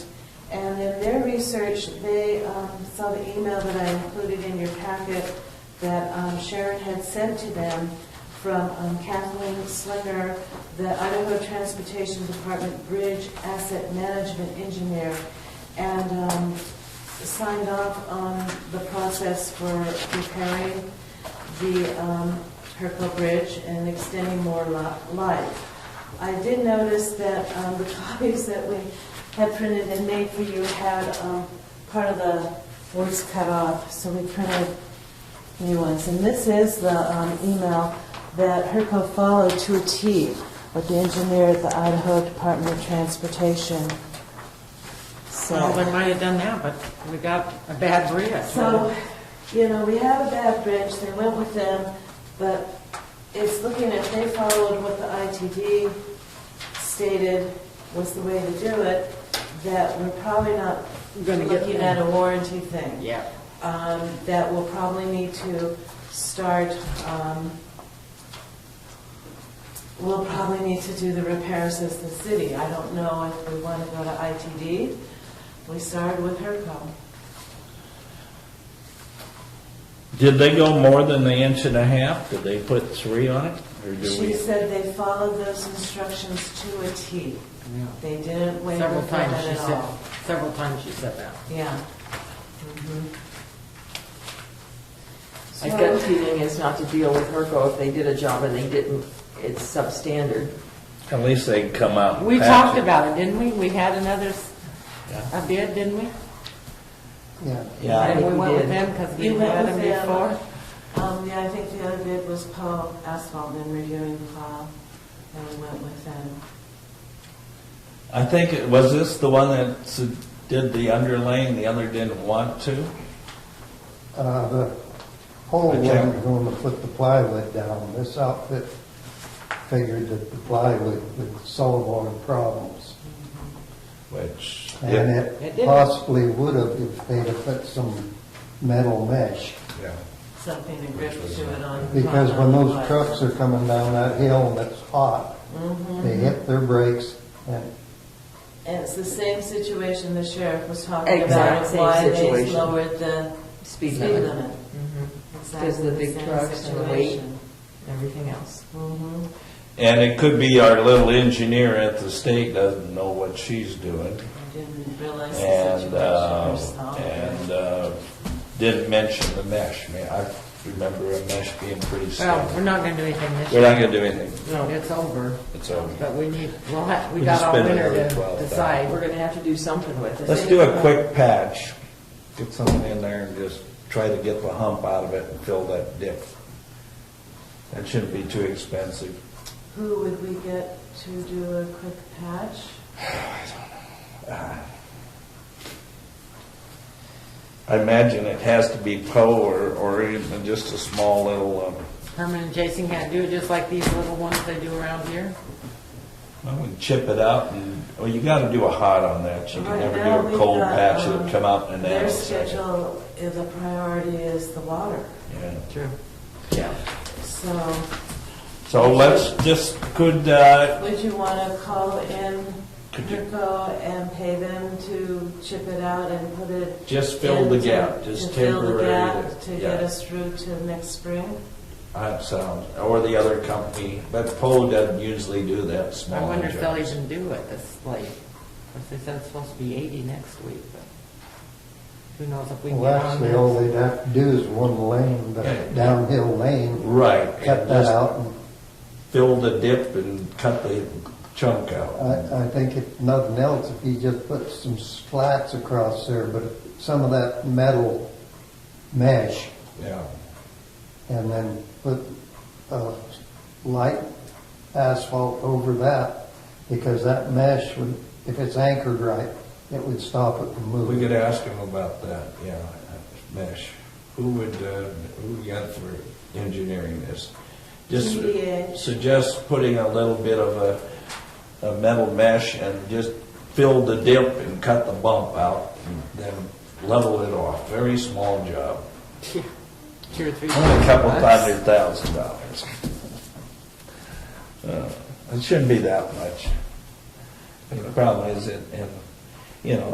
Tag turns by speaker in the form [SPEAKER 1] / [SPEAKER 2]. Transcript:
[SPEAKER 1] in their research, they um, saw the email that I included in your packet that um, Sharon had sent to them from um, Kathleen Slinger, the Idaho Transportation Department Bridge Asset Management Engineer, and um, signed off on the process for repairing the um, Herco Bridge and extending more li- life. I did notice that um, the copies that we had printed and made for you had um, part of the words cut off, so we printed new ones. And this is the um, email that Herco followed to a T with the engineer at the Idaho Department of Transportation. So-
[SPEAKER 2] Well, they might have done that, but we got a bad bridge.
[SPEAKER 1] So, you know, we have a bad bridge, they went with them, but it's looking at, they followed what the ITD stated was the way to do it, that we're probably not
[SPEAKER 2] Gonna get
[SPEAKER 1] looking at
[SPEAKER 2] them.
[SPEAKER 1] a warranty thing.
[SPEAKER 2] Yeah,
[SPEAKER 1] Um, That we'll probably need to start, um, we'll probably need to do the repairs as the city. I don't know if we want to go to ITD. We started with HERCO.
[SPEAKER 3] Did they go more than the inch and a half? Did they put three on it? Or do
[SPEAKER 1] She
[SPEAKER 3] we,
[SPEAKER 1] said they followed those instructions to a T.
[SPEAKER 2] yeah.
[SPEAKER 1] They didn't waver
[SPEAKER 2] Several
[SPEAKER 1] from
[SPEAKER 2] times
[SPEAKER 1] it
[SPEAKER 2] she
[SPEAKER 1] at
[SPEAKER 2] said,
[SPEAKER 1] all.
[SPEAKER 2] several times she said that.
[SPEAKER 1] Yeah. Mm-hmm.
[SPEAKER 4] My
[SPEAKER 1] So-
[SPEAKER 4] gut feeling is not to deal with Herco if they did a job and they didn't, it's substandard.
[SPEAKER 3] at least they can come out. and
[SPEAKER 2] We
[SPEAKER 3] patch
[SPEAKER 2] talked
[SPEAKER 3] it.
[SPEAKER 2] about it, didn't we? We had another, s-
[SPEAKER 3] Yeah.
[SPEAKER 2] a bid, didn't we?
[SPEAKER 5] Yeah.
[SPEAKER 4] Yeah, I
[SPEAKER 2] And
[SPEAKER 4] think
[SPEAKER 2] we
[SPEAKER 4] we
[SPEAKER 2] went with
[SPEAKER 4] did.
[SPEAKER 2] them because we
[SPEAKER 1] You went
[SPEAKER 2] had
[SPEAKER 1] with
[SPEAKER 2] them
[SPEAKER 1] them.
[SPEAKER 2] before.
[SPEAKER 1] Um, yeah, I think the other bid was Paul Asphalt and reviewing the file, and we went with them.
[SPEAKER 3] I think, it- was this the one that s- did the underlaying, the other didn't want to?
[SPEAKER 5] Uh, The whole
[SPEAKER 3] Okay.
[SPEAKER 5] wasn't going to put the plywood down. This outfit figured that the plywood would solve all the problems.
[SPEAKER 3] Which,
[SPEAKER 5] And
[SPEAKER 3] yeah,
[SPEAKER 2] It
[SPEAKER 5] it
[SPEAKER 2] didn't.
[SPEAKER 5] possibly would have if they'd have put some metal mesh.
[SPEAKER 1] Something to grip to it on.
[SPEAKER 5] Because when
[SPEAKER 1] on the
[SPEAKER 5] those
[SPEAKER 1] light.
[SPEAKER 5] trucks are coming down that hill and it's hot, they
[SPEAKER 2] Mm-hmm.
[SPEAKER 5] hit their brakes and
[SPEAKER 1] Mm-hmm. And it's the same situation the sheriff was talking about,
[SPEAKER 4] Exact
[SPEAKER 1] of
[SPEAKER 4] same
[SPEAKER 1] why they
[SPEAKER 4] situation.
[SPEAKER 1] lowered the
[SPEAKER 4] Speed
[SPEAKER 1] speed
[SPEAKER 4] limit, Mm-hmm.
[SPEAKER 1] limit.
[SPEAKER 4] Because the big trucks and the weight. everything else.
[SPEAKER 1] Mm-hmm.
[SPEAKER 3] and it could be our little engineer at the state doesn't know what she's doing.
[SPEAKER 1] I didn't realize the
[SPEAKER 3] And,
[SPEAKER 1] situation
[SPEAKER 3] uh,
[SPEAKER 1] herself.
[SPEAKER 3] and, uh, didn't mention the mesh. I mean, I remember a mesh being pretty
[SPEAKER 2] Well, we're
[SPEAKER 3] standard.
[SPEAKER 2] not gonna do anything this
[SPEAKER 3] We're
[SPEAKER 2] year.
[SPEAKER 3] not gonna do anything,
[SPEAKER 2] No, it's over,
[SPEAKER 3] it's over.
[SPEAKER 2] but we need, we'll have, we
[SPEAKER 3] We
[SPEAKER 2] got
[SPEAKER 3] just
[SPEAKER 2] all
[SPEAKER 3] spent
[SPEAKER 2] winter
[SPEAKER 3] another
[SPEAKER 2] to
[SPEAKER 3] 12,000.
[SPEAKER 2] decide.
[SPEAKER 4] We're going to have to do something with it.
[SPEAKER 3] Let's do a quick patch, get something in there and just try to get the hump out of it and fill that dip. That shouldn't be too expensive.
[SPEAKER 1] Who would we get to do a quick patch?
[SPEAKER 3] I imagine it has to be Poe or, or even just a small little, um,
[SPEAKER 2] Herman and Jason can't do it, just like these little ones they do around here.
[SPEAKER 3] I would chip it out and, well, you gotta do a hot on that. You can
[SPEAKER 1] Right
[SPEAKER 3] never
[SPEAKER 1] now,
[SPEAKER 3] do a
[SPEAKER 1] we've
[SPEAKER 3] cold
[SPEAKER 1] got,
[SPEAKER 3] patch,
[SPEAKER 1] um,
[SPEAKER 3] it'll come out in an
[SPEAKER 1] Their
[SPEAKER 3] hour. second.
[SPEAKER 1] schedule, eh, the priority is the water,
[SPEAKER 3] Yeah.
[SPEAKER 2] True.
[SPEAKER 3] Yeah.
[SPEAKER 1] so
[SPEAKER 3] So let's just, could, uh,
[SPEAKER 1] would you want to call in
[SPEAKER 3] Could you-
[SPEAKER 1] Herco and pay them to chip it out and put it?
[SPEAKER 3] just fill the
[SPEAKER 1] in to-
[SPEAKER 3] gap, just
[SPEAKER 1] To fill the
[SPEAKER 3] temporary.
[SPEAKER 1] gap to
[SPEAKER 3] yeah.
[SPEAKER 1] get us through to next spring?
[SPEAKER 3] That sounds, or the other company, but Poe doesn't usually do that
[SPEAKER 2] I
[SPEAKER 3] small.
[SPEAKER 2] wonder if they'll
[SPEAKER 3] jobs.
[SPEAKER 2] even do it this late. Of course, they said it's supposed to be 80 next week, but who knows if we can
[SPEAKER 5] well,
[SPEAKER 2] get on
[SPEAKER 5] actually
[SPEAKER 2] there.
[SPEAKER 5] all they'd have to do is one lane, the downhill lane,
[SPEAKER 3] Right.
[SPEAKER 5] cut that
[SPEAKER 3] just
[SPEAKER 5] out and
[SPEAKER 3] Fill the dip and cut the chunk out.
[SPEAKER 5] I, I think if nothing else, if you just put some slats across there, but some of that metal mesh,
[SPEAKER 3] Yeah.
[SPEAKER 5] and then put, uh, light asphalt over that, because that mesh would, if it's anchored right, it would stop it from
[SPEAKER 3] We
[SPEAKER 5] moving.
[SPEAKER 3] could ask him about that, yeah, mesh. Who would, uh, who we got for engineering this? Just
[SPEAKER 1] TBA.
[SPEAKER 3] suggest putting a little bit of a, a metal mesh and just fill the dip and cut the bump out, and then level it off. Very small job.
[SPEAKER 2] Two or three.
[SPEAKER 3] Only a couple
[SPEAKER 2] bucks.
[SPEAKER 3] hundred thousand dollars. Uh, It shouldn't be that much. The problem is, it, and, you know,